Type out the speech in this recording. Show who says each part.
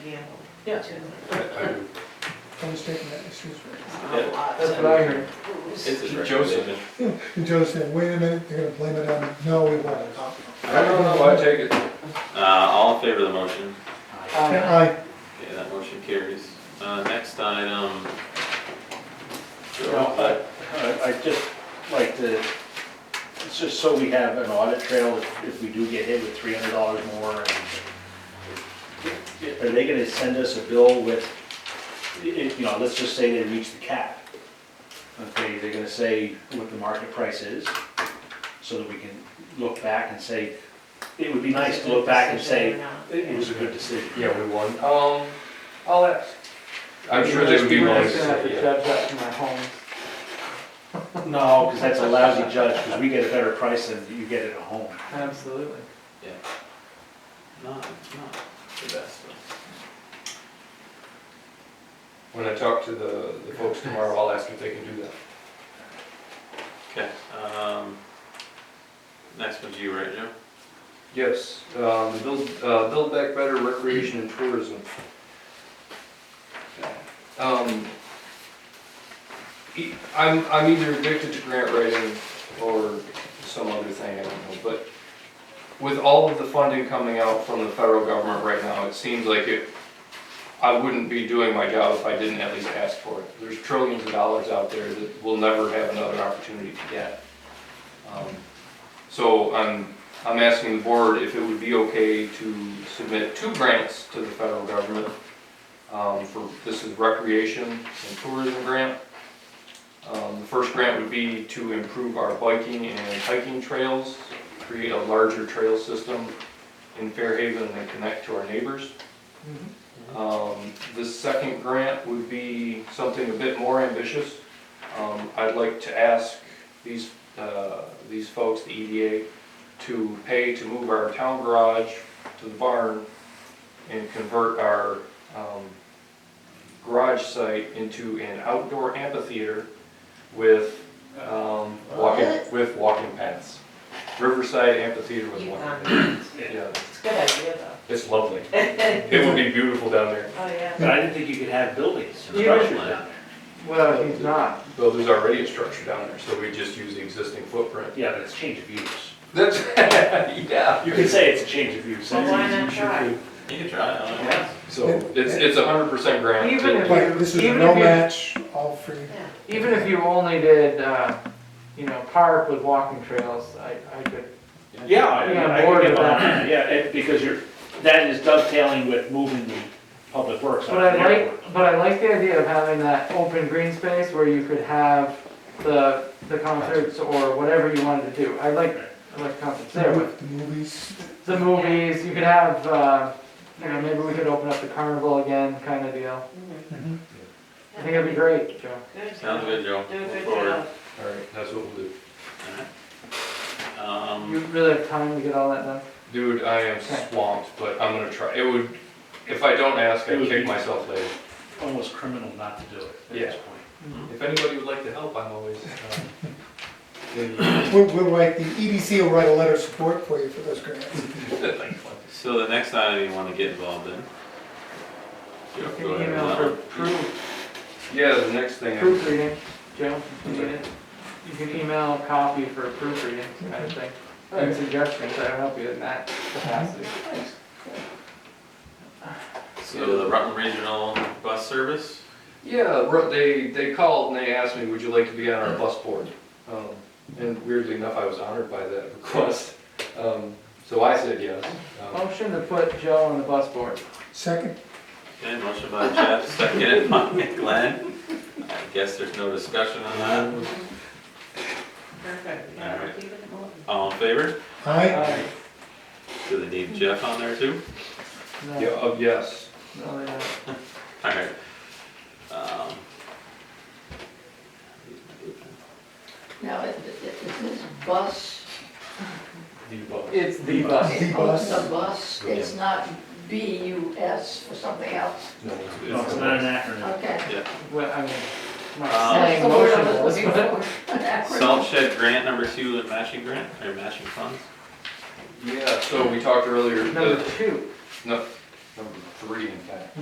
Speaker 1: handled.
Speaker 2: Yeah.
Speaker 1: too.
Speaker 3: Don't state that, excuse
Speaker 1: It's
Speaker 3: me.
Speaker 1: an awful lot.
Speaker 2: That's what I heard.
Speaker 4: It's his
Speaker 5: Joseph.
Speaker 3: And Joe said, wait a minute, they're gonna blame it on, no, we won't.
Speaker 2: Oh,
Speaker 5: I don't know, I take it.
Speaker 4: Uh, all in favor of the motion?
Speaker 2: Uh,
Speaker 3: Aye,
Speaker 4: Okay, that motion carries. Uh, next item.
Speaker 6: No, I- I- I'd just like to, it's just so we have an audit trail if, if we do get hit with three hundred dollars more and. Are they gonna send us a bill with, i- if, you know, let's just say they reach the cap. Okay, they're gonna say what the market price is, so that we can look back and say, it would be nice to look back and say, it was a good decision.
Speaker 5: Yeah, we won.
Speaker 2: Um, I'll ask.
Speaker 5: I'm sure they would be
Speaker 2: We're
Speaker 5: willing
Speaker 2: not
Speaker 5: to
Speaker 2: gonna have to
Speaker 5: say, yeah.
Speaker 2: judge that from my home.
Speaker 6: No, because that's a lousy judge, because we get a better price than you get at a home.
Speaker 2: Absolutely.
Speaker 4: Not, not the best, but
Speaker 5: When I talk to the, the folks tomorrow, I'll ask if they can do that.
Speaker 4: Okay, um, next one's you, right, Joe?
Speaker 5: Yes, um, build, uh, build back better recreation and tourism. Um, e- I'm, I'm either addicted to grant writing or some other thing, I don't know, but with all of the funding coming out from the federal government right now, it seems like it, I wouldn't be doing my job if I didn't at least ask for it. There's trillions of dollars out there that we'll never have another opportunity to get. Um, So I'm I'm asking the board if it would be okay to submit two grants to the federal government. um, For, this is recreation and tourism grant. Um, The first grant would be to improve our biking and hiking trails, create a larger trail system in Fairhaven and connect to our neighbors. Um, The second grant would be something a bit more ambitious. Um, I'd like to ask these, uh, these folks, the EDA, to pay to move our town garage to the barn and convert our um, garage site into an outdoor amphitheater with, um, walking,
Speaker 1: What?
Speaker 5: with walking paths. Riverside Amphitheater with
Speaker 1: You've
Speaker 5: walking
Speaker 1: gone nuts.
Speaker 5: paths. Yeah,
Speaker 1: It's a good idea though.
Speaker 5: it's lovely. It would be beautiful down there.
Speaker 1: Oh, yeah.
Speaker 6: But I didn't think you could have buildings,
Speaker 4: Yeah.
Speaker 6: structures down there.
Speaker 2: Well, he's not.
Speaker 5: Well, there's already a structure down there, so we just use the existing footprint.
Speaker 6: Yeah, but it's a change of use.
Speaker 5: That's, yeah.
Speaker 6: You could say it's a change of use.
Speaker 1: Well,
Speaker 6: that's
Speaker 1: why
Speaker 6: easy,
Speaker 1: not
Speaker 6: you should
Speaker 1: try?
Speaker 6: do.
Speaker 4: You can try it, I don't know.
Speaker 6: Yeah.
Speaker 5: So it's, it's a hundred percent grant.
Speaker 2: Even if-
Speaker 3: but this is
Speaker 2: Even
Speaker 3: no
Speaker 2: if you-
Speaker 3: match, all free.
Speaker 1: Yeah.
Speaker 2: Even if you only did, uh, you know, park with walking trails, I, I could,
Speaker 6: Yeah, I mean,
Speaker 2: Yeah,
Speaker 6: I could
Speaker 2: board
Speaker 6: get
Speaker 2: of that.
Speaker 6: behind that, yeah, it- because you're, that is dovetailing with moving the public works.
Speaker 2: but
Speaker 6: out of
Speaker 2: I
Speaker 6: the airport.
Speaker 2: like, but I like the idea of having that open green space where you could have the, the concerts or whatever you wanted to do. I like, I like concerts there, but
Speaker 3: The movies,
Speaker 2: the movies, you could have, uh, you know, maybe we could open up the carnival again, kind of deal.
Speaker 1: Mhm.
Speaker 3: mhm.
Speaker 2: Mm-hmm. I think that'd be great, Joe.
Speaker 1: Good.
Speaker 4: Sounds good, Joe.
Speaker 1: Do a
Speaker 4: Move
Speaker 1: good
Speaker 4: forward.
Speaker 1: job.
Speaker 5: All right, that's what we'll do.
Speaker 4: Alright. Um,
Speaker 2: You really have time to get all that done?
Speaker 5: Dude, I am swamped, but I'm gonna try. It would, if I don't ask, I kick myself later.
Speaker 6: Almost criminal not to do it at
Speaker 5: Yeah.
Speaker 6: this point.
Speaker 5: If anybody would like to help, I'm always, uh, um,
Speaker 3: We'll, we'll write, the EDC will write a letter of support for you for those grants.
Speaker 4: so the next item you wanna get involved in. Joe,
Speaker 2: Can
Speaker 4: go
Speaker 2: you
Speaker 4: ahead.
Speaker 2: email
Speaker 4: Well,
Speaker 2: for proof,
Speaker 5: yeah, the next thing, I-
Speaker 2: proofreading, Joe? You need it? You can email a copy for proofreading, kind of thing. And suggestions, I'll help you in that capacity.
Speaker 4: So the Rutland Regional Bus Service,
Speaker 5: yeah, Ru- they, they called and they asked me, would you like to be on our bus board? Um, And weirdly enough, I was honored by that request. Um, So I said yes. Um,
Speaker 2: Motion to put Joe on the bus board.
Speaker 3: Second,
Speaker 4: okay, motion by Chad, seconded by Glenn. I guess there's no discussion on that.
Speaker 1: Mm-hmm. Perfect.
Speaker 4: All right.
Speaker 1: Keep it going.
Speaker 4: All in favor?
Speaker 3: aye,
Speaker 2: Alright,
Speaker 4: Do they need Jeff on there too?
Speaker 2: no,
Speaker 5: Yeah, of yes.
Speaker 2: no, they don't.
Speaker 4: Alright. Um,
Speaker 7: Now, i- i- is this bus,
Speaker 5: The bus.
Speaker 2: It's the bus.
Speaker 3: the
Speaker 7: oh, it's
Speaker 3: bus.
Speaker 7: a bus, it's not B-U-S or something else?
Speaker 5: No,
Speaker 6: No, it's not an acronym.
Speaker 7: Okay.
Speaker 2: Well, I mean, I'm
Speaker 4: Um,
Speaker 2: not
Speaker 7: That's
Speaker 2: saying
Speaker 7: the word I
Speaker 2: motionless,
Speaker 7: was looking
Speaker 2: but.
Speaker 7: for. An acronym.
Speaker 4: Salt shed grant number two, the matching grant, or matching funds?
Speaker 5: Yeah, so we talked earlier,
Speaker 2: Number
Speaker 5: the,
Speaker 2: two,
Speaker 5: no, number three in fact.